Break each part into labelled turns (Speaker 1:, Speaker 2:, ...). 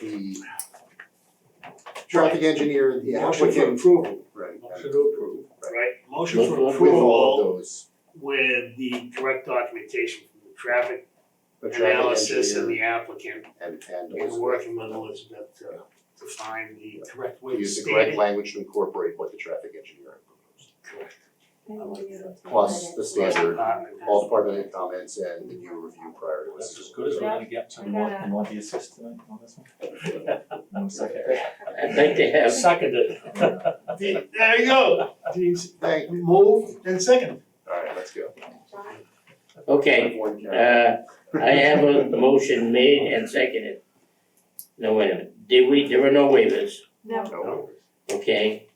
Speaker 1: the traffic engineer, the
Speaker 2: Motion for
Speaker 1: applicant.
Speaker 2: approval,
Speaker 1: Right.
Speaker 3: Motion to approve.
Speaker 2: right? Motion
Speaker 1: With
Speaker 2: for
Speaker 1: with all
Speaker 2: approval
Speaker 1: of those,
Speaker 2: with the correct documentation from the traffic
Speaker 1: the traffic
Speaker 2: analysis and
Speaker 1: engineer
Speaker 2: the applicant
Speaker 1: and and
Speaker 2: and
Speaker 1: Elizabeth,
Speaker 2: working with Elizabeth to to find the correct way to
Speaker 1: use the
Speaker 2: state
Speaker 1: correct
Speaker 2: it.
Speaker 1: language to incorporate what the traffic engineer had proposed.
Speaker 2: Correct.
Speaker 1: Plus the standard,
Speaker 2: Department.
Speaker 1: all department head comments and the new review prior to
Speaker 4: That's as
Speaker 1: this.
Speaker 4: good as we're gonna get to the one,
Speaker 5: Yeah.
Speaker 4: the one the assist tonight on this one. No second.
Speaker 6: I think they have.
Speaker 3: Seconded.
Speaker 2: The- There you go, Jeez.
Speaker 1: Thank you,
Speaker 2: move and second.
Speaker 1: alright, let's go.
Speaker 6: Okay,
Speaker 1: One carry.
Speaker 6: uh, I have a motion made and seconded. No, wait a minute, did we, there were no waivers,
Speaker 5: No,
Speaker 1: No,
Speaker 6: okay?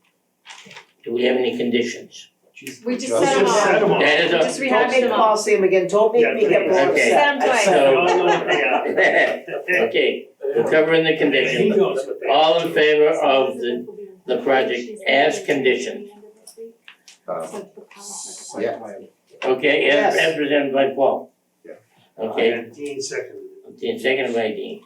Speaker 6: Do we have any conditions?
Speaker 5: we just uh,
Speaker 1: Just
Speaker 5: set them
Speaker 2: set
Speaker 5: all.
Speaker 2: them all.
Speaker 6: That is
Speaker 5: Just
Speaker 6: a,
Speaker 5: rehashing them all.
Speaker 7: see him again, don't
Speaker 2: make me get more
Speaker 6: Okay.
Speaker 5: upset. Set
Speaker 2: No,
Speaker 6: So-
Speaker 2: no, yeah.
Speaker 6: okay, we're covering the
Speaker 2: He
Speaker 6: conditions.
Speaker 2: knows what they.
Speaker 6: All in favor of the, the project as conditioned,
Speaker 1: um, yeah.
Speaker 6: okay, as,
Speaker 7: Yes.
Speaker 6: as presented by Paul?
Speaker 1: Yeah.
Speaker 6: Okay,
Speaker 2: And Dean seconded.
Speaker 6: Dean, seconded by Dean.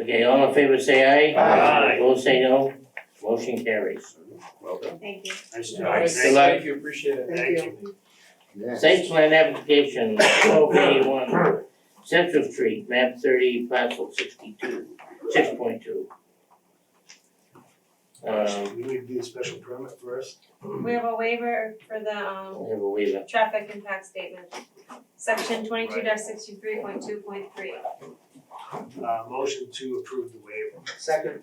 Speaker 6: Okay, all in favor, say aye.
Speaker 2: Aye.
Speaker 6: Opposed, say no. Motion carries.
Speaker 1: Well done.
Speaker 5: Thank you.
Speaker 2: Nice
Speaker 3: All
Speaker 2: job.
Speaker 3: right,
Speaker 6: Good luck.
Speaker 3: thank you, appreciate it.
Speaker 2: Thank you.
Speaker 1: Next.
Speaker 6: Site plan application, twelve eighty-one, Central Street, map thirty, parcel sixty-two, six point two. Um,
Speaker 2: We need to do a special permit first.
Speaker 5: We have a waiver for the um
Speaker 6: I have a waiver,
Speaker 5: traffic impact statement, section twenty-two sixty-three point two point three.
Speaker 2: Uh, motion to approve the waiver.
Speaker 7: Second.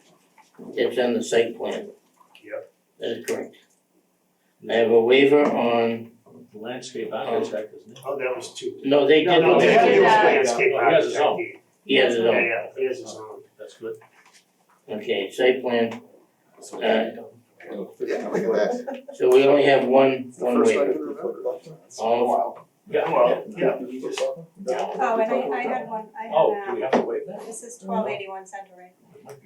Speaker 6: it's on the site plan.
Speaker 2: Yep.
Speaker 6: That is correct. I have a waiver on,
Speaker 4: Landscape architect, isn't it?
Speaker 2: Oh, that was two.
Speaker 6: no, they did.
Speaker 2: No, no,
Speaker 5: they
Speaker 2: they had to do
Speaker 5: did
Speaker 2: a
Speaker 5: that.
Speaker 2: landscape
Speaker 4: He has his
Speaker 2: architect.
Speaker 4: own.
Speaker 6: He has his
Speaker 2: Yeah,
Speaker 6: own,
Speaker 2: yeah, he has his own.
Speaker 4: That's good.
Speaker 6: okay, site plan,
Speaker 4: So-
Speaker 6: Uh,
Speaker 1: Yeah, look at that,
Speaker 6: so we only have one,
Speaker 1: the
Speaker 6: one
Speaker 1: first
Speaker 6: waiver.
Speaker 1: item in the report.
Speaker 6: All,
Speaker 4: Yeah,
Speaker 2: Well, yeah,
Speaker 4: we just-
Speaker 5: Oh, and I I had one, I
Speaker 4: Oh, do
Speaker 5: had
Speaker 4: we have to waive that?
Speaker 5: um, this is twelve eighty-one Central Way.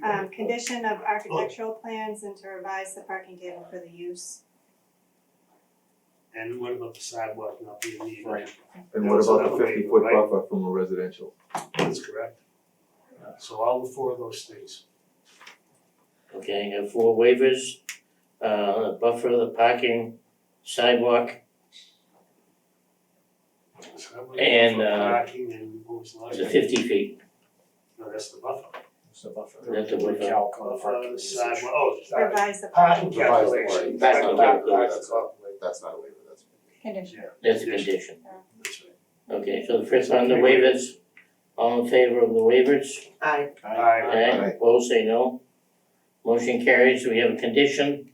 Speaker 5: Um, condition of architectural plans and to revise the parking table for the use.
Speaker 2: and what about the sidewalk not being needed?
Speaker 4: Right.
Speaker 8: And what
Speaker 2: That's
Speaker 8: about
Speaker 2: another
Speaker 8: the
Speaker 2: way,
Speaker 8: fifty foot
Speaker 2: right?
Speaker 8: buffer from a residential?
Speaker 2: That's correct. So all the four of those things.
Speaker 6: okay, I have four waivers, uh, buffer, the parking, sidewalk,
Speaker 2: Sidewalk,
Speaker 6: And, uh,
Speaker 2: Parking and what was the last
Speaker 6: the
Speaker 2: one?
Speaker 6: fifty feet.
Speaker 2: No, that's the buffer.
Speaker 4: It's a buffer.
Speaker 6: That's a buffer.
Speaker 2: Buffer, the Uh, sidewalk, oh, sorry.
Speaker 5: Revise
Speaker 6: Uh,
Speaker 5: the
Speaker 2: Parking
Speaker 1: Revise the parking.
Speaker 2: calculation.
Speaker 6: That's not calculated.
Speaker 2: That's calculated.
Speaker 1: That's not a waiver, that's.
Speaker 5: condition.
Speaker 6: That's a condition.
Speaker 2: That's right.
Speaker 6: Okay, so the first on the waivers, all in favor of the waivers?
Speaker 7: Aye.
Speaker 2: Aye.
Speaker 6: Aye, opposed, say no. Motion carries, we have a condition,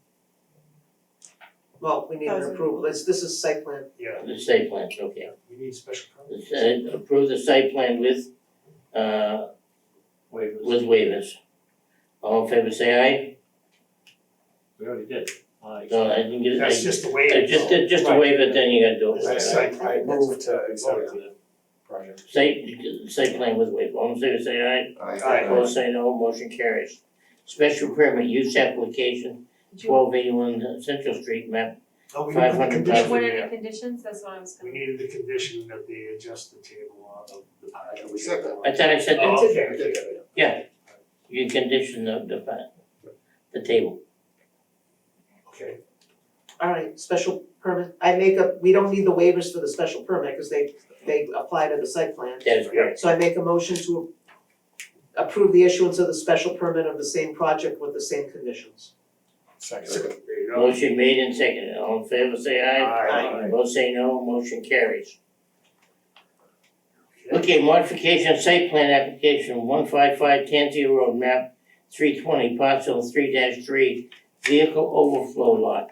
Speaker 7: Well, we need an
Speaker 5: Thousand.
Speaker 7: approval, this, this is site plan,
Speaker 2: Yeah,
Speaker 6: the site plan, okay.
Speaker 2: we need special permit.
Speaker 6: The site- Approve the site plan with, uh,
Speaker 4: Waivers,
Speaker 6: with waivers. All in favor, say
Speaker 4: we already did. Aye.
Speaker 6: aye. No, I didn't get it.
Speaker 2: That's just the way
Speaker 6: Uh,
Speaker 2: it
Speaker 6: Just,
Speaker 2: goes.
Speaker 6: just a waiver, then you gotta do
Speaker 2: That's
Speaker 6: it.
Speaker 2: site plan.
Speaker 7: move
Speaker 3: to
Speaker 4: Voted to the project.
Speaker 6: Site, site plan with waiver, all in favor, say aye.
Speaker 2: Aye.
Speaker 6: Opposed, say no, motion carries. Special permit use application, twelve eighty-one Central Street, map.
Speaker 2: No, we need the
Speaker 6: 500,000.
Speaker 2: condition,
Speaker 5: What are the conditions, that's what I was
Speaker 2: we
Speaker 5: gonna.
Speaker 2: needed the condition that they adjust the table on the, the parking.
Speaker 1: We said that.
Speaker 6: I thought I said
Speaker 2: Oh,
Speaker 6: that,
Speaker 2: okay,
Speaker 1: We did.
Speaker 2: okay.
Speaker 6: you condition the, the, pa- the table.
Speaker 2: Okay,
Speaker 7: alright, special permit, I make a, we don't need the waivers for the special permit, cause they, they apply to the site plan.
Speaker 6: That is correct.
Speaker 7: So I make a motion to approve the issuance of the special permit of the same project with the same conditions.
Speaker 2: second, there you go.
Speaker 6: Motion made and seconded, all in favor, say aye.
Speaker 2: Aye.
Speaker 6: Opposed, say no, motion carries.
Speaker 2: Okay.
Speaker 6: Okay, modification of site plan application, one five five Tansy Road, map three twenty, parcel three three, vehicle overflow lot.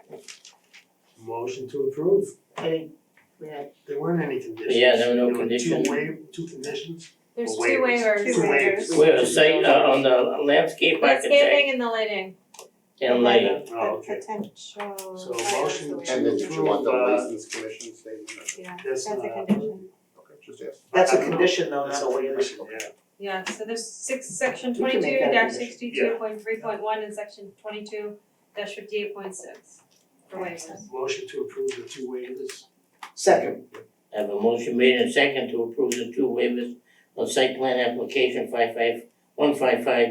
Speaker 2: Motion to approve.
Speaker 7: Any, we had,
Speaker 2: There weren't any conditions.
Speaker 6: Yeah, there were no
Speaker 2: There
Speaker 6: conditions.
Speaker 2: were two wa- two conditions.
Speaker 5: There's two
Speaker 2: Waivers.
Speaker 5: waivers.
Speaker 2: Two waivers.
Speaker 6: Where the site, uh, on the landscape architect
Speaker 5: Landscaping and the lighting.
Speaker 6: and lighting.
Speaker 2: Oh, okay.
Speaker 5: Potential.
Speaker 2: So motion
Speaker 5: Right,
Speaker 1: And then did you want the
Speaker 2: Uh,
Speaker 1: license commission statement?
Speaker 5: Yeah,
Speaker 2: That's
Speaker 5: that's a
Speaker 2: not-
Speaker 5: condition.
Speaker 1: Okay, just ask.
Speaker 7: that's
Speaker 2: I
Speaker 7: a
Speaker 2: don't know.
Speaker 7: condition though,
Speaker 2: That's
Speaker 7: not
Speaker 2: a
Speaker 7: a waiver.
Speaker 2: condition, yeah.
Speaker 5: Yeah, so there's six, section
Speaker 7: We can
Speaker 5: twenty-two
Speaker 7: make that a
Speaker 5: sixty-two point three point one and section twenty-two fifty-eight point six for waivers.
Speaker 2: Motion to approve the two waivers.
Speaker 7: Second,
Speaker 6: I have a motion made and second to approve the two waivers of site plan application five five, one five five